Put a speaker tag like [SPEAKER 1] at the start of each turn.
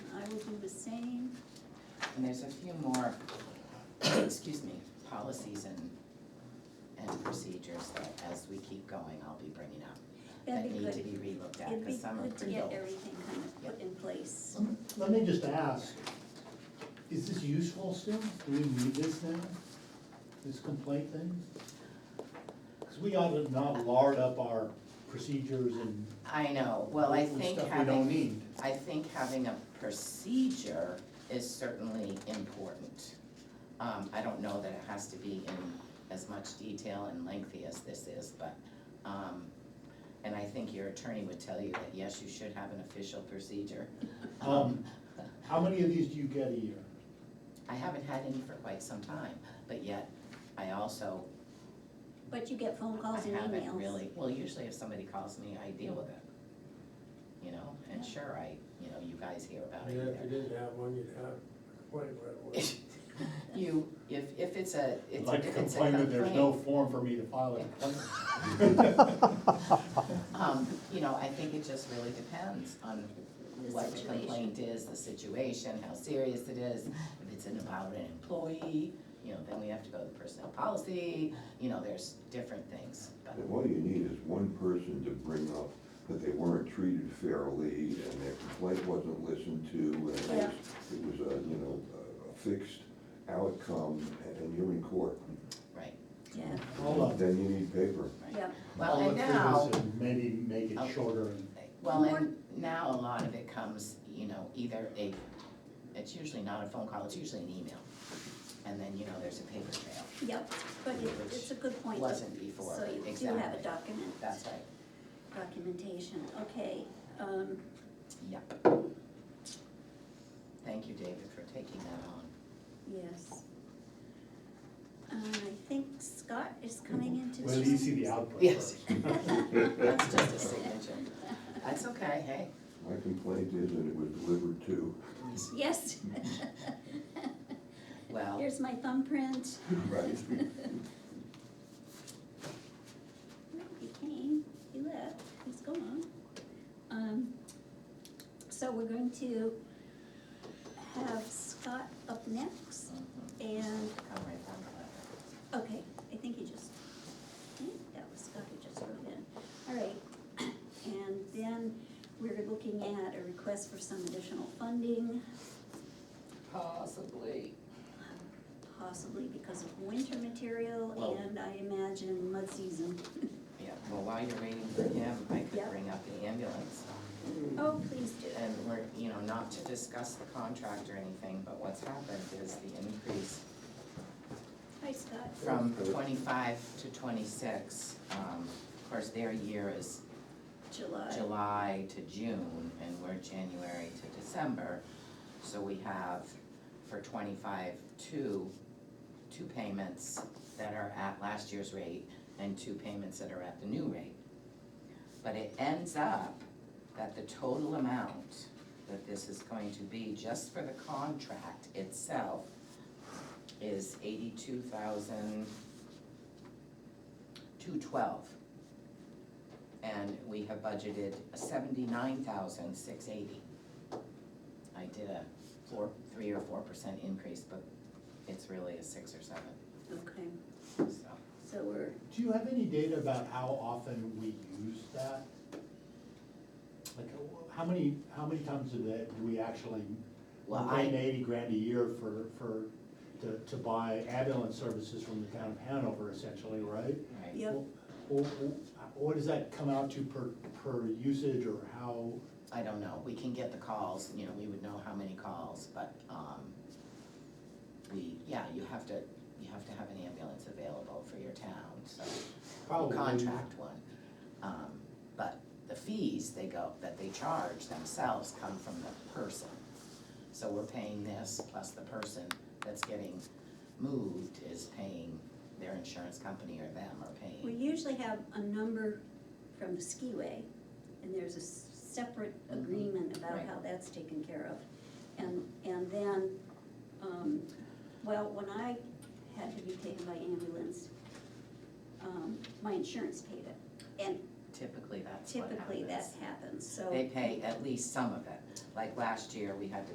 [SPEAKER 1] And there's a few more, excuse me, policies and, and procedures that as we keep going, I'll be bringing up.
[SPEAKER 2] That'd be
[SPEAKER 1] That need to
[SPEAKER 2] good.
[SPEAKER 1] be relooked at,
[SPEAKER 2] It'd be
[SPEAKER 1] because some are
[SPEAKER 2] good to
[SPEAKER 1] pretty
[SPEAKER 2] get
[SPEAKER 1] old. Mm.
[SPEAKER 2] everything kind of put in place.
[SPEAKER 3] Let me just ask, is this useful still? Do we need this now? This complaint thing? Because we ought to not lard up our procedures and
[SPEAKER 1] I know, well, I
[SPEAKER 3] hopefully
[SPEAKER 1] think
[SPEAKER 3] stuff we don't
[SPEAKER 1] having,
[SPEAKER 3] need.
[SPEAKER 1] I think having a procedure is certainly important. Um, I don't know that it has to be in as much detail and lengthy as this is, but, um, and I think your attorney would tell you that, yes, you should have an official procedure.
[SPEAKER 3] Um, How many of these do you get a year?
[SPEAKER 1] I haven't had any for quite some time, but yet I also,
[SPEAKER 2] But you get phone
[SPEAKER 1] I
[SPEAKER 2] calls and
[SPEAKER 1] haven't
[SPEAKER 2] emails.
[SPEAKER 1] really, well, usually if somebody calls me, I deal with it. You know, and sure, I, you know, you guys hear about it
[SPEAKER 4] Yeah, if you
[SPEAKER 1] either.
[SPEAKER 4] didn't have one, you'd have a complaint right away.
[SPEAKER 1] You, if, if it's a, it's a,
[SPEAKER 3] Like
[SPEAKER 1] if
[SPEAKER 3] to
[SPEAKER 1] it's a complaint.
[SPEAKER 3] complain that there's no form for me to file a complaint.
[SPEAKER 1] Um, you know, I think it just really depends on
[SPEAKER 2] The
[SPEAKER 1] what the
[SPEAKER 2] situation.
[SPEAKER 1] complaint is, the situation, how serious it is. If it's an- about an employee, you know, then we have to go to the personnel policy, you know, there's different things, but.
[SPEAKER 5] And all you need is one person to bring up that they weren't treated fairly and their complaint wasn't listened to and it was,
[SPEAKER 2] Yeah.
[SPEAKER 5] it was a, you know, a fixed outcome and- and you're in court.
[SPEAKER 1] Right,
[SPEAKER 2] Yeah,
[SPEAKER 1] Mm,
[SPEAKER 3] Hold on.
[SPEAKER 5] Then you need paper.
[SPEAKER 2] yeah.
[SPEAKER 1] well,
[SPEAKER 3] I'll
[SPEAKER 1] and
[SPEAKER 3] look through
[SPEAKER 1] now, eh,
[SPEAKER 3] this and Maybe make it shorter and
[SPEAKER 1] well, and now a lot of it comes, you know, either a, it's usually not a phone call, it's usually an email. And then, you know, there's a paper trail,
[SPEAKER 2] Yep, but it, it's a good point.
[SPEAKER 1] wasn't before,
[SPEAKER 2] So you do have a
[SPEAKER 1] exactly.
[SPEAKER 2] document,
[SPEAKER 1] that's right,
[SPEAKER 2] documentation, okay. Um,
[SPEAKER 1] yep. Thank you, David, for taking that on.
[SPEAKER 2] yes. Uh, I think Scott is coming into town.
[SPEAKER 3] let you see the output
[SPEAKER 1] Yes.
[SPEAKER 3] first.
[SPEAKER 1] That's just a signature. That's okay, hey.
[SPEAKER 5] My complaint is that it was delivered to.
[SPEAKER 2] Yes.
[SPEAKER 1] Well,
[SPEAKER 2] Here's my thumbprint.
[SPEAKER 5] Right.
[SPEAKER 2] No, He came, he left, he's gone. Um, so we're going to have Scott up next
[SPEAKER 1] mhm,
[SPEAKER 2] and,
[SPEAKER 1] come right down to that.
[SPEAKER 2] okay, I think he just, I think that was Scott who just wrote in. All right, and then we're looking at a request for some additional funding,
[SPEAKER 1] Possibly.
[SPEAKER 2] possibly because of winter material
[SPEAKER 1] Well-
[SPEAKER 2] and I imagine mud season.
[SPEAKER 1] Yeah, well, while you're waiting for him, I
[SPEAKER 2] Yeah.
[SPEAKER 1] could bring up the ambulance.
[SPEAKER 2] Oh, please do.
[SPEAKER 1] And we're, you know, not to discuss the contract or anything, but what's happened is the increase
[SPEAKER 2] Hi, Scott.
[SPEAKER 1] from twenty-five to twenty-six. um, Of course, their year is
[SPEAKER 2] July.
[SPEAKER 1] July to June, and we're January to December. So we have for twenty-five, two, two payments that are at last year's rate and two payments that are at the new rate. But it ends up that the total amount that this is going to be, just for the contract itself, is eighty-two thousand, two twelve. And we have budgeted seventy-nine thousand, six eighty. I did a four, three or four percent increase, but it's really a six or seven,
[SPEAKER 2] Okay,
[SPEAKER 1] so.
[SPEAKER 2] so we're,
[SPEAKER 3] Do you have any data about how often we use that? Like, uh, how many, how many times do that, do we actually, we
[SPEAKER 1] Well,
[SPEAKER 3] pay
[SPEAKER 1] I-
[SPEAKER 3] eighty grand a year for, for, to, to buy ambulance services from the town of Hanover essentially, right?
[SPEAKER 1] Right.
[SPEAKER 2] Yep.
[SPEAKER 3] Well, well, well, uh, what does that come out to per, per usage or how,
[SPEAKER 1] I don't know, we can get the calls, you know, we would know how many calls, but, um, we, yeah, you have to, you have to have an ambulance available for your town, so.
[SPEAKER 3] Probably.
[SPEAKER 1] Contract one, um, but the fees they go, that they charge themselves come from the person. So we're paying this, plus the person that's getting moved is paying their insurance company or them are
[SPEAKER 2] we
[SPEAKER 1] paying,
[SPEAKER 2] usually have a number from the skiway, and there's a s- separate agreement about
[SPEAKER 1] Mm-hmm. Right.
[SPEAKER 2] how that's taken care of. And, and then, um, well, when I had to be taken by ambulance, um, my insurance paid it, and
[SPEAKER 1] typically that's what happens.
[SPEAKER 2] typically that happens, so.
[SPEAKER 1] They pay at least some of it, like last year, we had to